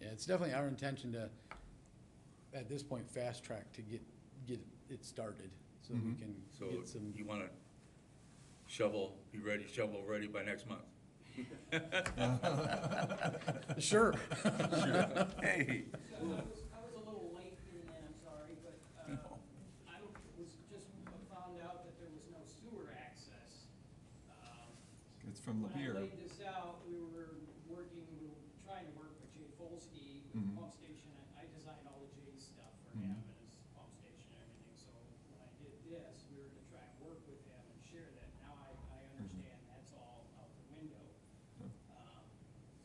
it's definitely our intention to, at this point, fast track to get, get it started, so we can So get some. you wanna shovel, be ready, shovel ready by next month? Sure. Hey, I was, I was a little late in that, I'm sorry, but, uh, I was just found out that there was no sewer access. Um, It's from When I Lapeer. laid this out, we were working, we were trying to work with Jay Folsky with Mhm. pump station, I- I designed all the Jay's stuff for Mhm. him and his pump station and everything, so when I did this, we were to try and work with him and share that, now I, I understand that's all out the window. Yep. Um,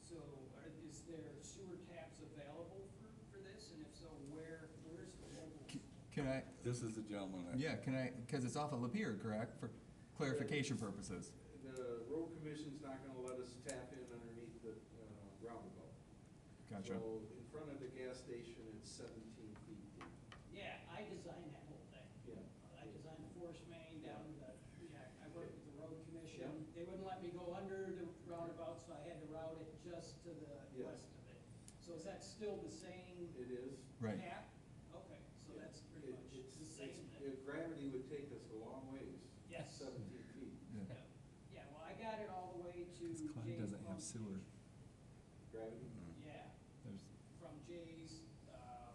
So, are, is there sewer taps available for, for this, and if so, where, where's the local? Can I, this is the gentleman. that- yeah, can I, because it's off of Lapeer, correct, for clarification purposes? The road commission's not gonna let us tap in underneath the uh, roundabout. Gotcha. So in front of the gas station, it's seventeen feet deep. Yeah, I designed that whole thing. Yeah. I designed the forest main down to the, yeah, I worked with the road commission. Yeah. They wouldn't let me go under the roundabout, so I had to route it just to the Yeah. west of it. So is that still the same It is. Right. cap? Okay, so that's pretty It- much it's- the it's- same then. it- Gravity would take us a long ways. Yes. Seventeen feet. Yeah. Yeah. Yeah, well, I got it all the way to This Clyde Jay's doesn't have pump sewer. station. Gravity? Yeah, There's, from Jay's, um,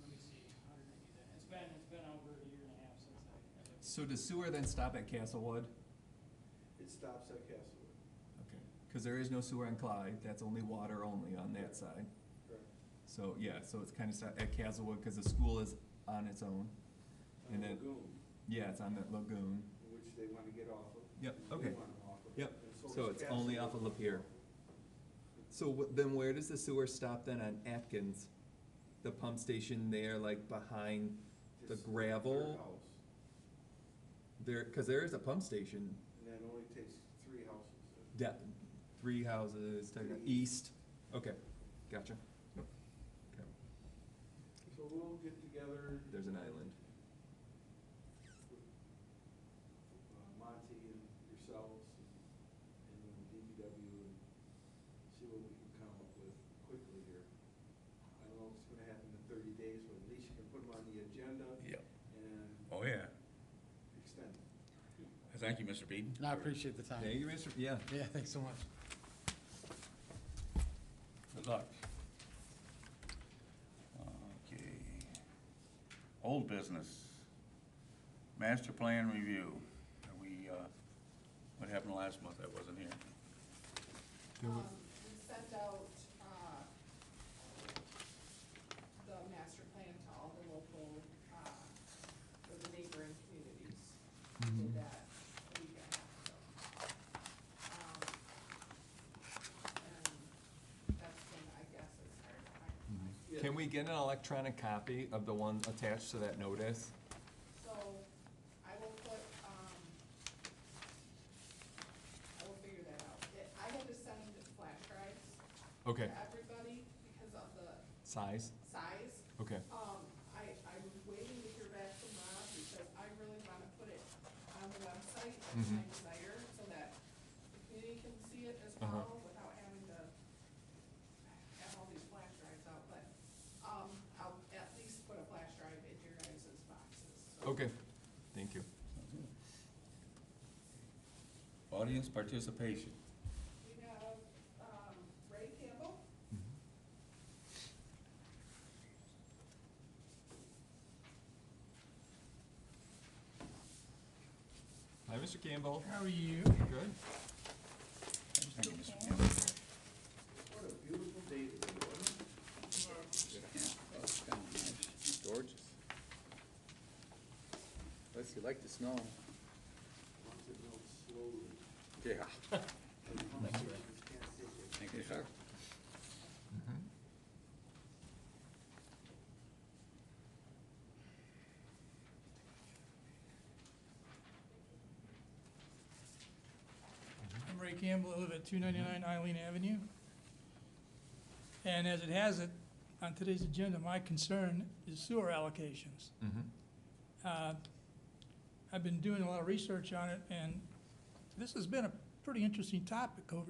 let me see, how did I do that? It's been, it's been over a year and a half since I. I looked at so does sewer then stop at Castlewood? It stops at Castlewood. Okay. Because there is no sewer on Clyde, that's only water only on that side. Correct. So, yeah, so it's kind of stop at Castlewood because the school is on its own. On And then- Lagoon, Yeah, it's on that lagoon. which they wanna get off of. Yep, and we okay. wanna off of. Yep, And so does it's only off of Castlewood. Lapeer. So wh- then where does the sewer stop then on Atkins? The pump station there, like behind the Just their gravel? house. There, because there is a pump station, And that only takes three houses. de- three houses, to the Three. east. Okay, gotcha. Yep. Okay. So we'll get together. There's an island. uh, Monty and yourselves and and then DPW and see what we can come up with quickly here. I don't know if it's gonna happen in thirty days, but at least you can put them on the agenda Yep. and Oh, yeah. extend it. Thank you, Mr. Beeden. And I appreciate the time. Thank you, Mr. Yeah. Yeah, thanks so much. Good luck. Okay. Old business. Master plan review. Are we, uh, what happened last month? I wasn't here. Um, we sent out, uh, the master plan to all the local, uh, or the neighboring communities. We Did that a week and a half ago. Um, and that's when I guess it started finalizing. Can we get an electronic copy of the one attached to that notice? So I will put, um, I will figure that out. It- I had to send flash drives Okay, to everybody because of the size? size. Okay, Um, I, I'm waiting to hear back from Rob because I really wanna put it on the website, that's my Mhm. desire, so that the community can see it as Uh-huh. well without having to have all these flash drives out, but, um, I'll at least put a flash drive in your guys' boxes. so. okay, thank you. Audience participation. We have, um, Ray Campbell. Hi, Mr. Campbell. How are you? Good. Thank you, Mr. Campbell. What a beautiful day today, wasn't it? Gorgeous. Unless you like the snow. Once it melts slowly. Yeah. the conversations can't take it. Thank you, sir. I'm Ray Campbell, I live at 299 Eileen Avenue. And as it has it, on today's agenda, my concern is sewer allocations. Mm-hmm. Uh, I've been doing a lot of research on it, and this has been a pretty interesting topic over the